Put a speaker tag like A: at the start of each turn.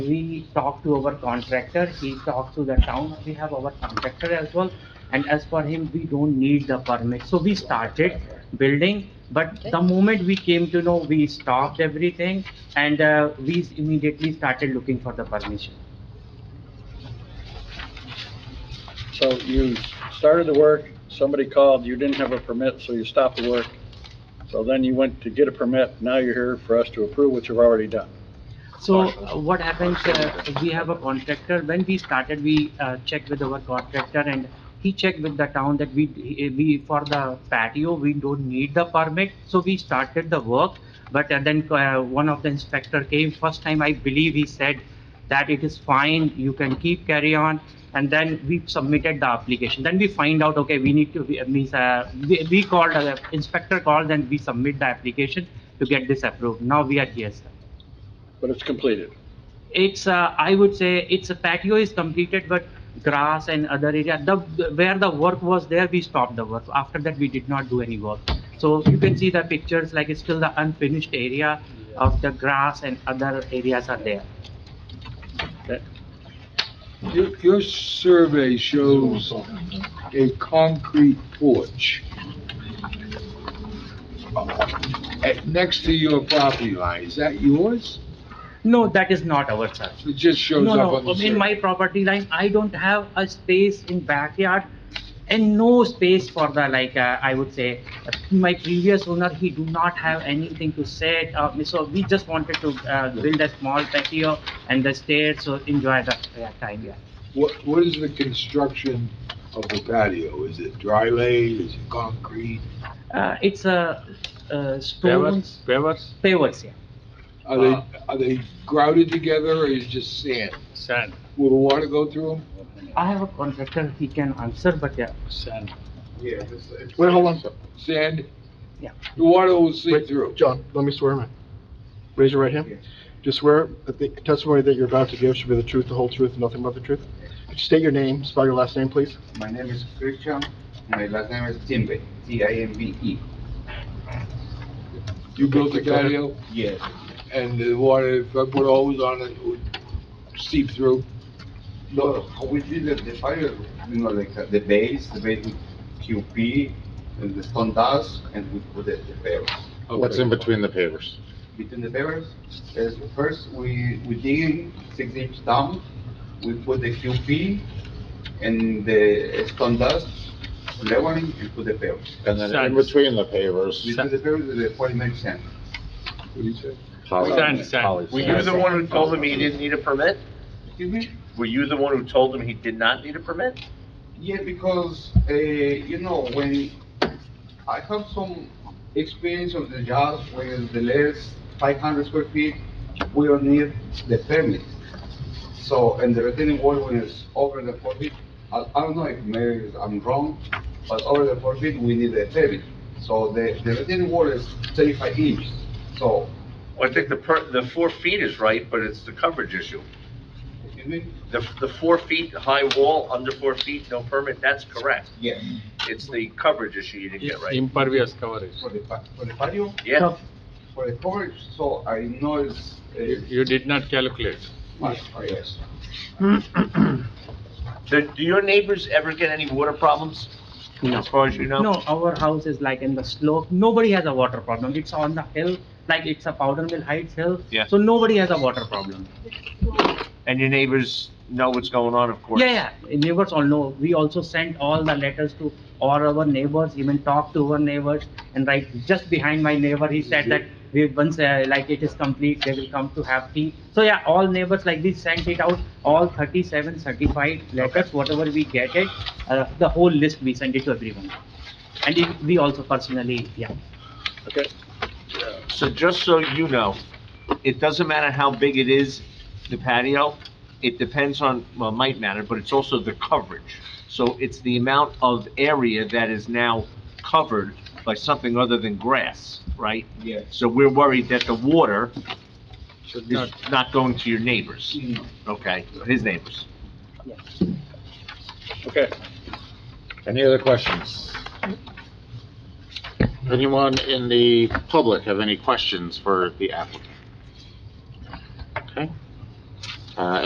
A: we talk to our contractor, he talks to the town, we have our contractor as well. And as for him, we don't need the permit. So we started building, but the moment we came to know, we stopped everything and uh, we immediately started looking for the permission.
B: So you started the work, somebody called, you didn't have a permit, so you stopped the work. So then you went to get a permit, now you're here for us to approve what you've already done.
A: So uh, what happens, uh, we have a contractor, when we started, we uh, checked with our contractor and he checked with the town that we, we, for the patio, we don't need the permit, so we started the work. But uh, then uh, one of the inspector came, first time I believe he said that it is fine, you can keep carry on. And then we submitted the application, then we find out, okay, we need to, we- means, uh, we we called, uh, inspector called and we submit the application to get this approved, now we are here, sir.
B: But it's completed.
A: It's, uh, I would say, it's a patio is completed, but grass and other area, the, where the work was there, we stopped the work. After that, we did not do any work. So you can see the pictures, like it's still the unfinished area of the grass and other areas are there.
C: Your, your survey shows a concrete porch uh, next to your property line. Is that yours?
A: No, that is not our sir.
C: It just shows
A: No,
C: up on
A: no,
C: the
A: in my
C: survey.
A: property line, I don't have a space in backyard and no space for the, like, uh, I would say, my previous owner, he do not have anything to sit, uh, so we just wanted to, uh, build a small patio and the stairs, so enjoy the uh, time, yeah.
C: What, what is the construction of the patio? Is it dry laid? Is it concrete?
A: Uh, it's a, uh,
D: Pavers,
A: stones,
D: pavers,
A: pavers, yeah.
C: Are
A: Uh,
C: they, are they grouted together or is it just sand?
D: sand,
C: Will the water go through them?
A: I have a contractor, he can answer, but yeah,
D: sand.
E: Yeah.
F: Wait, hold on. a sec.
C: Sand?
A: Yeah.
C: The water will seep
F: Wait,
C: through.
F: John, let me swear, man. Raise your right hand. Do you swear that the testimony that you're about to give should be the truth, the whole truth, and nothing but the truth? Could you State your name, spell your last name, please.
E: My name is Christian, my last name is Timbe, T I M B E.
C: You built the
F: Go ahead.
C: patio
E: Yes.
C: and the water, if I put a hose on it, it would seep through.
E: No, how we did it, the fire, you know, like uh, the base, the base with QP and the stone dust and we put it the pavers.
C: Oh, What's in between?
E: Between the pavers, is first we, we dig in six inch down, we put the QP and the stone dust leveling and put the pavers.
G: And then in
D: Sand.
G: between the pavers.
E: Between the pavers, the polymer sand.
D: Sand, sand.
H: Were you the one who told him he didn't need a permit?
E: Excuse me?
H: Were you the one who told him he did not need a permit?
E: Yeah, because, uh, you know, when I have some experience of the jobs where the less five hundred square feet, we don't need the permit. So, and the retaining wall when it's over the four feet, I, I don't know if maybe I'm wrong, but over the four feet, we need a permit. So the, the retaining wall is thirty-five inches, so,
H: Well, I think the per, the four feet is right, but it's the coverage issue.
E: excuse me?
H: The, the four feet high wall, under four feet, no permit, that's correct.
E: Yes,
H: It's the coverage issue you didn't get right.
D: Impervious coverage.
E: for the, pa- for the patio,
H: Yeah,
E: for the coverage, so I know it's,
D: You
E: uh,
D: you did not calculate.
E: much, yes.
H: do, do your neighbors ever get any water problems? As far as you know?
A: No, our house is like in the slope, nobody has a water problem, it's on the hill, like it's a powder mill heights hill.
H: Yeah.
A: So nobody has a water problem.
H: And your neighbors know what's going on, of course?
A: Yeah, yeah, neighbors all know. We also sent all the letters to all our neighbors, even talked to our neighbors. And right, just behind my neighbor, he said that we once, uh, like it is complete, they will come to have tea. So yeah, all neighbors like this sent it out, all 37 certified letters, whatever we get it, uh, the whole list, we send it to everyone. And it- we also personally, yeah.
B: Okay,
H: So just so you know, it doesn't matter how big it is, the patio, it depends on, well, it might matter, but it's also the coverage. So it's the amount of area that is now covered by something other than grass, right?
E: Yes.
H: So we're worried that the water
D: Should
H: is
D: not. Mm.
H: not going to your neighbors,
E: No.
H: okay, his neighbors.
B: okay.
G: Any other questions? Anyone in the public have any questions for the applicant? Okay. Uh,